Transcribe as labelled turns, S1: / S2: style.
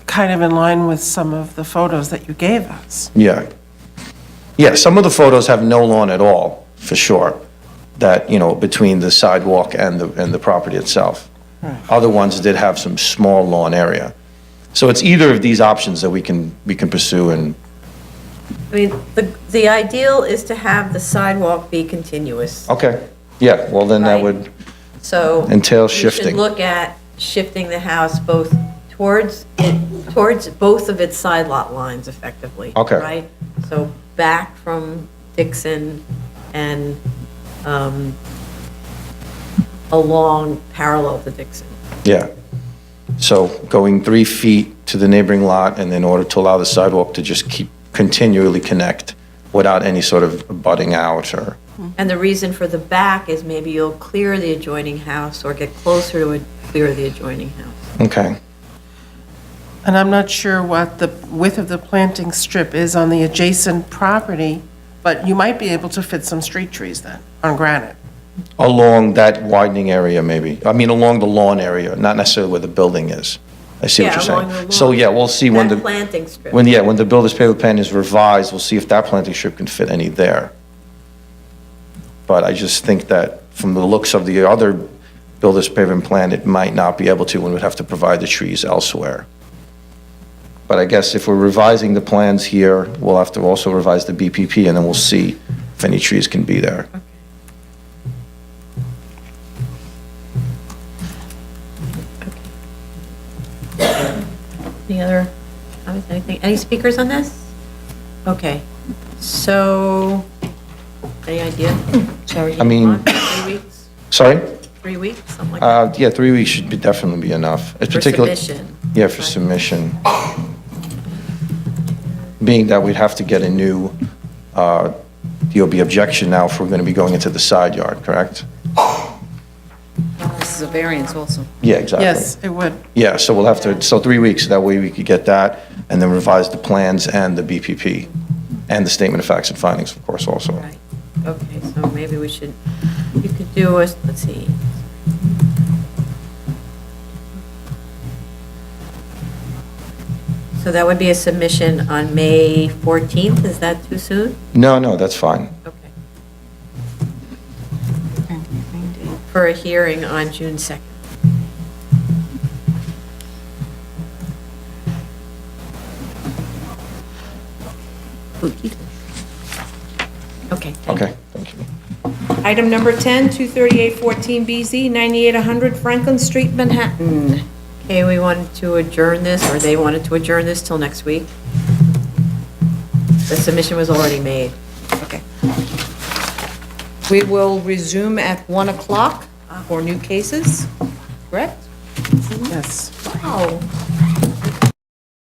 S1: kind of in line with some of the photos that you gave us.
S2: Yeah. Yeah, some of the photos have no lawn at all, for sure, that, you know, between the sidewalk and the, and the property itself. Other ones did have some small lawn area. So it's either of these options that we can, we can pursue and,
S3: I mean, the, the ideal is to have the sidewalk be continuous,
S2: okay, yeah, well, then that
S3: Right.
S2: would,
S3: so.
S2: Entail
S3: You
S2: shifting.
S3: should look at shifting the house both towards, it towards both of its side lot lines effectively.
S2: Okay.
S3: Right? So back from Dixon and um, along parallel to Dixon.
S2: yeah. So going three feet to the neighboring lot and in order to allow the sidewalk to just keep, continually connect without any sort of butting out or,
S3: And the reason for the back is maybe you'll clear the adjoining house or get closer to it, clear the adjoining house.
S2: okay.
S1: And I'm not sure what the width of the planting strip is on the adjacent property, but you might be able to fit some street trees then, on granite.
S2: Along that widening area, maybe. I mean, along the lawn area, not necessarily where the building is. I see what
S3: Yeah,
S2: you're
S3: along
S2: saying.
S3: the
S2: So,
S3: lawn.
S2: yeah, we'll see when
S3: That
S2: the,
S3: planting strip.
S2: when, yeah, when the builder's pavement plan is revised, we'll see if that planting strip can fit any there. But I just think that from the looks of the other builder's pavement plan, it might not be able to, and would have to provide the trees elsewhere. But I guess if we're revising the plans here, we'll have to also revise the BPP, and then we'll see if any trees can be there.
S3: Any other, comments? anything, any speakers on this? Okay, so, any idea? Sorry.
S2: I mean-
S3: Three weeks,
S2: Sorry?
S3: three weeks, something like that,
S2: Uh, yeah, three weeks should be, definitely be enough.
S3: for submission.
S2: Yeah, for
S3: Right.
S2: submission. Being that we'd have to get a new, uh, DOB objection now if we're gonna be going into the side yard, correct?
S4: This is a variance also.
S2: Yeah, exactly.
S1: Yes, it would.
S2: Yeah, so we'll have to, so three weeks, that way we could get that, and then revise the plans and the BPP, and the statement of facts and findings, of course, also.
S3: Right, okay, so maybe we should, you could do us, let's see. So that would be a submission on May 14th, is that too soon?
S2: No, no, that's fine.
S3: Okay. For a hearing on June 2nd. Okay. thank you.
S2: Okay, thank you.
S5: Item number 10, 23814BZ, 9800 Franklin Street, Manhattan.
S3: Okay, we wanted to adjourn this, or they wanted to adjourn this till next week. The submission was already made.
S5: Okay. We will resume at 1 o'clock for new cases, correct?
S1: Yes.
S3: Wow.